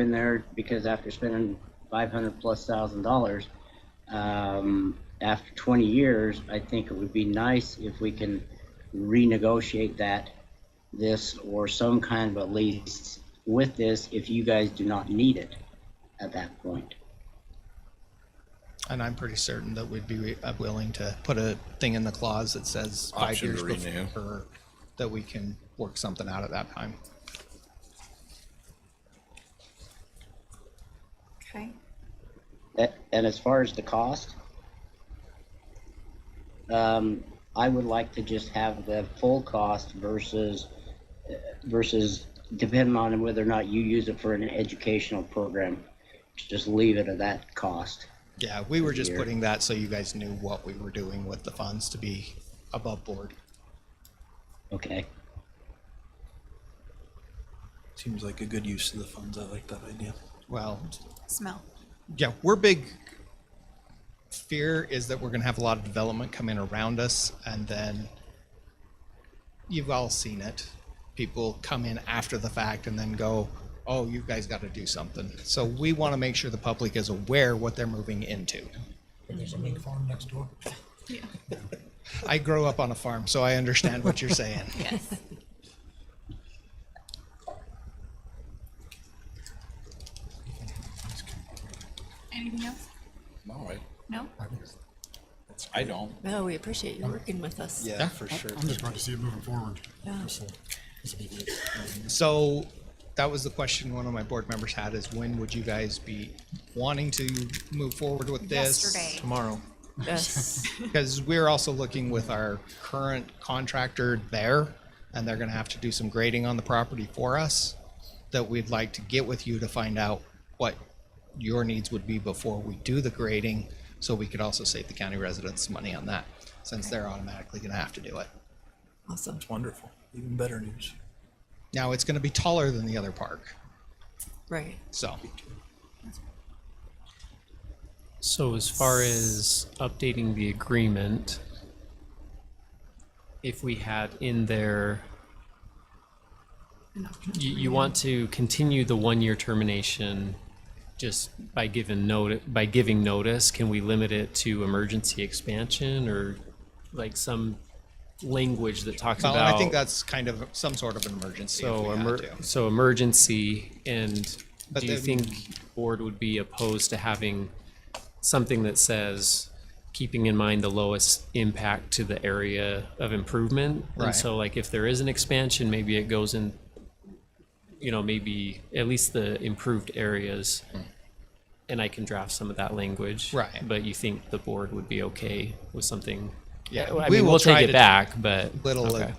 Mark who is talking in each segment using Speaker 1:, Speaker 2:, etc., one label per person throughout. Speaker 1: in there because after spending five hundred plus thousand dollars, um, after twenty years, I think it would be nice if we can renegotiate that, this or some kind of a lease with this if you guys do not need it at that point.
Speaker 2: And I'm pretty certain that we'd be uh, willing to put a thing in the clause that says five
Speaker 3: Option
Speaker 2: years
Speaker 3: to renew.
Speaker 2: before, that we can work something out at that time.
Speaker 4: Okay.
Speaker 1: That- And as far as the cost, um, I would like to just have the full cost versus, uh, versus depending on whether or not you use it for an educational program. Just leave it at that cost.
Speaker 2: Yeah, we were just
Speaker 1: Here.
Speaker 2: putting that so you guys knew what we were doing with the funds to be above board.
Speaker 1: Okay,
Speaker 5: Seems like a good use of the funds. I like that idea.
Speaker 2: Well,
Speaker 4: Smell.
Speaker 2: yeah, we're big fear is that we're gonna have a lot of development come in around us and then you've all seen it. People come in after the fact and then go, oh, you guys gotta do something. So we wanna make sure the public is aware what they're moving into.
Speaker 6: There's a mink farm next door.
Speaker 2: I grew up on a farm, so I understand what you're saying.
Speaker 4: Yes. Anything else?
Speaker 3: No, I,
Speaker 4: No?
Speaker 3: I don't.
Speaker 7: No, Oh, we appreciate you working with us.
Speaker 5: Yeah, for sure.
Speaker 6: I'm just glad to see it moving forward.
Speaker 7: Yeah.
Speaker 6: This will- this will be good.
Speaker 2: So that was the question one of my board members had is when would you guys be wanting to move forward with this?
Speaker 4: Yesterday.
Speaker 5: Tomorrow.
Speaker 7: Yes.
Speaker 2: Because we're also looking with our current contractor there, and they're gonna have to do some grading on the property for us that we'd like to get with you to find out what your needs would be before we do the grading, so we could also save the county residents money on that, since they're automatically gonna have to do it.
Speaker 7: Awesome.
Speaker 5: It's wonderful. Even better news.
Speaker 2: Now, it's gonna be taller than the other park,
Speaker 7: Right.
Speaker 2: so.
Speaker 8: So as far as updating the agreement, if we had in there, you, you want to continue the one-year termination just by given notice, by giving notice, can we limit it to emergency expansion or like some language that talks
Speaker 2: Well,
Speaker 8: about?
Speaker 2: and I think that's kind of some sort of an emergency if
Speaker 8: So,
Speaker 2: we had
Speaker 8: emer-
Speaker 2: to.
Speaker 8: so emergency, and
Speaker 2: But
Speaker 8: do you
Speaker 2: then-
Speaker 8: think board would be opposed to having something that says, keeping in mind the lowest impact to the area of improvement?
Speaker 2: Right.
Speaker 8: And so like if there is an expansion, maybe it goes in, you know, maybe at least the improved areas. And I can draft some of that language.
Speaker 2: Hmm. Right.
Speaker 8: But you think the board would be okay with something?
Speaker 2: Yeah,
Speaker 8: I
Speaker 2: we
Speaker 8: mean,
Speaker 2: will
Speaker 8: we'll
Speaker 2: try
Speaker 8: take
Speaker 2: to
Speaker 8: it back, but.
Speaker 2: Little
Speaker 8: okay.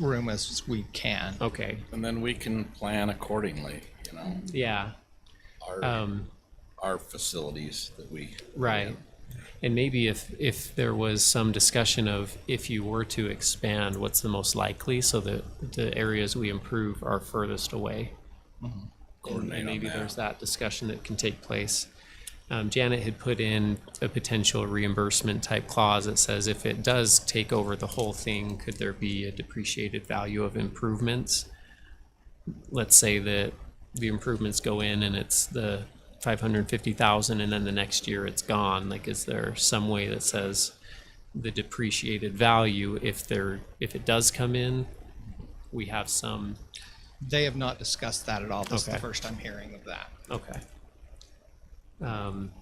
Speaker 8: Oh.
Speaker 2: room as we can.
Speaker 8: Okay,
Speaker 3: And then we can plan accordingly, you know,
Speaker 8: yeah.
Speaker 3: our,
Speaker 8: Um,
Speaker 3: our facilities that we.
Speaker 8: Right. And maybe if, if there was some discussion of if you were to expand, what's the most likely so that the areas we improve are furthest away? And-
Speaker 3: Coordinate on
Speaker 8: And maybe
Speaker 3: that.
Speaker 8: there's that discussion that can take place. Um, Janet had put in a potential reimbursement type clause that says if it does take over the whole thing, could there be a depreciated value of improvements? let's say that the improvements go in and it's the five hundred and fifty thousand and then the next year it's gone, like is there some way that says the depreciated value, if there, if it does come in, we have some,
Speaker 2: They have not discussed that at all. This is the
Speaker 8: Okay.
Speaker 2: first I'm hearing of that.
Speaker 8: okay. Um,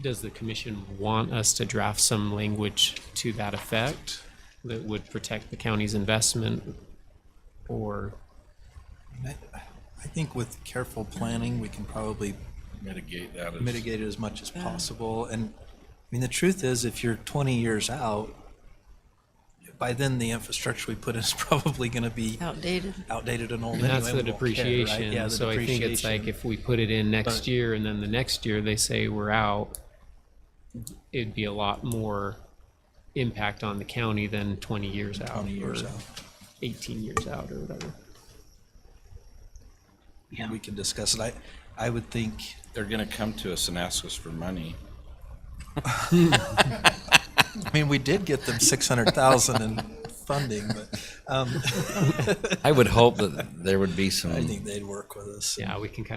Speaker 8: Does the commission want us to draft some language to that effect that would protect the county's investment? Or,
Speaker 5: I I think with careful planning, we can probably
Speaker 3: Mitigate that. as-
Speaker 5: mitigate it as much as possible. And I mean, the truth is, if you're 20 years out, by then the infrastructure we put in is probably going to be
Speaker 7: Outdated.
Speaker 5: outdated and old.
Speaker 8: And that's the
Speaker 5: anyway. We won't care, right? Yeah,
Speaker 8: depreciation,
Speaker 5: the
Speaker 8: so I think it's like
Speaker 5: depreciation.
Speaker 8: if we put it in next year and then the next year they say we're out, it'd be a lot more impact on the county than twenty years out
Speaker 5: 20
Speaker 8: or
Speaker 5: years out.
Speaker 8: eighteen years out or whatever.
Speaker 1: yeah.
Speaker 5: we can discuss it. I, I would think
Speaker 3: They're gonna come to us and ask us for money.
Speaker 5: I mean, we did get them six hundred thousand and funding, but um,
Speaker 3: I would hope that there would be some.
Speaker 5: I think they'd work with us. and-
Speaker 8: Yeah, we can kind